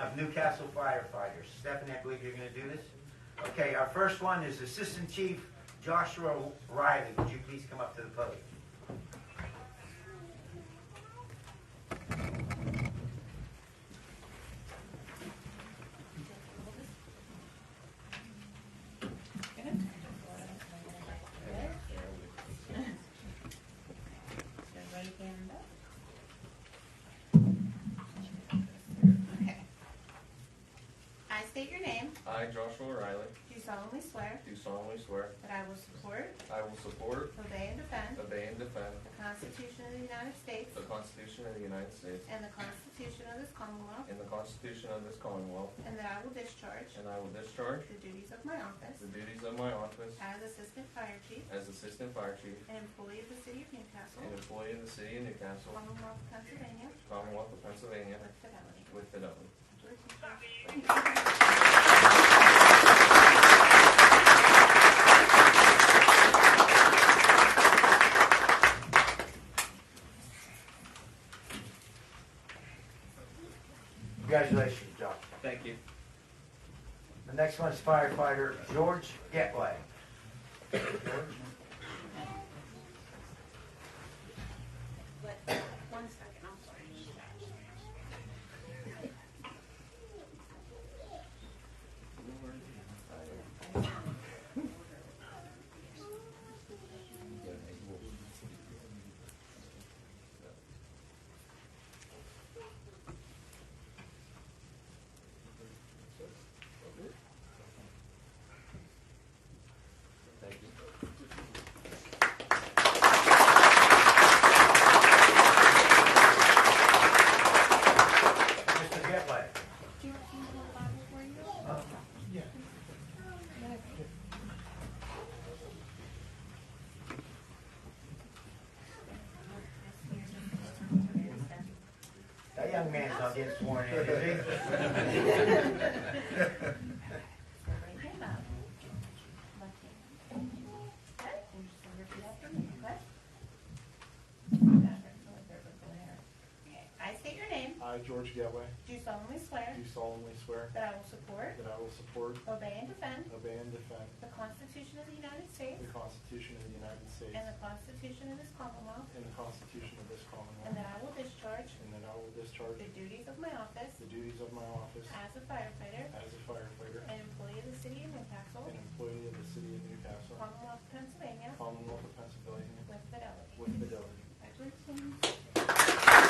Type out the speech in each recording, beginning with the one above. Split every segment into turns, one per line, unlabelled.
of Newcastle firefighters. Stephanie, I believe you're gonna do this? Okay, our first one is Assistant Chief Joshua Riley. Would you please come up to the podium?
Your right hand up. Okay. I state your name.
I, Joshua Riley,
Do solemnly swear
do solemnly swear
that I will support,
I will support,
obey, and defend
obey, and defend
the Constitution of the United States
the Constitution of the United States
and the Constitution of this Commonwealth,
and the Constitution of this Commonwealth,
and that I will discharge
and I will discharge
the duties of my office
the duties of my office
as Assistant Fire Chief
as Assistant Fire Chief
and employee of the City of
and
Newcastle,
employee of the City of Newcastle,
Commonwealth of Pennsylvania,
Commonwealth of Pennsylvania,
with fidelity.
with fidelity.
Congratulations, Joshua.
Thank you.
The next one's firefighter George Getway.
One second, I'm sorry.
Thank you.
Mr. Getway.
Do you want me to hold the Bible for you?
That young man's not getting sworn in, is
Right hand up. Left hand. Okay, and just repeat after me, okay? Okay, I state your name,
I, George Getway,
do solemnly swear
do solemnly swear
that I will support,
that I will support,
obey, and defend
obey, and defend
the Constitution of the United States
the Constitution of the United States
and the Constitution of this Commonwealth,
and the Constitution of this
and
Commonwealth,
that I will discharge
and that I will discharge
the duties of my office
the duties of my office
as a firefighter
as a firefighter
and employee of the city of Newcastle,
and employee of the City of Newcastle,
Commonwealth of Pennsylvania,
Commonwealth of Pennsylvania,
with fidelity.
with fidelity.
Congratulations.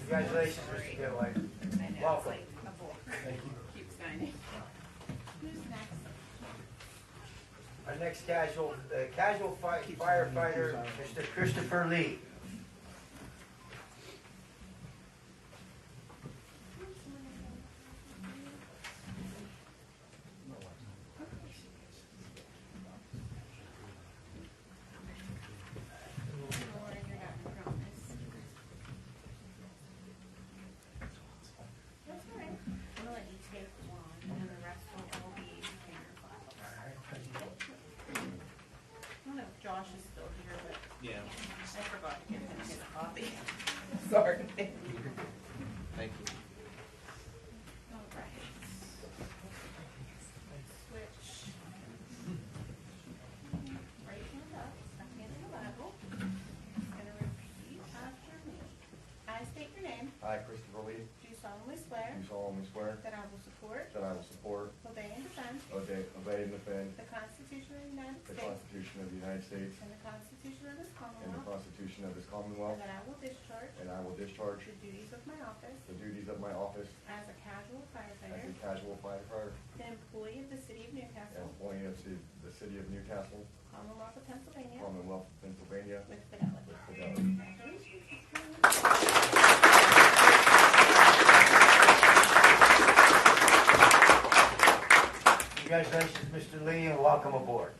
Congratulations, Mr. Getway.
I know, it's
Welcome.
like a book. Keep signing. Who's next?
Our next casual, uh, casual fi- firefighter, Mr. Christopher Lee.
Laura, you're not in the office. That's all right. I'm gonna let you take one, and then the rest will all be in your file. I don't know if Josh is still here, but.
Yeah.
I forgot to give him his copy. Sorry.
Thank you.
All right. Switch. Right hand up, left hand in the Bible. Just gonna repeat after me. I state your name,
I, Christopher Lee,
do solemnly swear
do solemnly swear
that I will support,
that I will support,
obey, and defend
obey, obey, and defend
the Constitution of the United
the
States
Constitution of the United States
and the Constitution of this
and the
Commonwealth,
Constitution of this Commonwealth,
and that I will discharge
and I will discharge
the duties of my office
the duties of my office
as a casual
as
firefighter,
a casual firefighter
an employee of the City of
and
Newcastle,
employee of ci- the City of Newcastle,
Commonwealth of Pennsylvania,
Commonwealth of Pennsylvania,
with fidelity.
with fidelity.
Congratulations, Mr. Lee, and welcome aboard.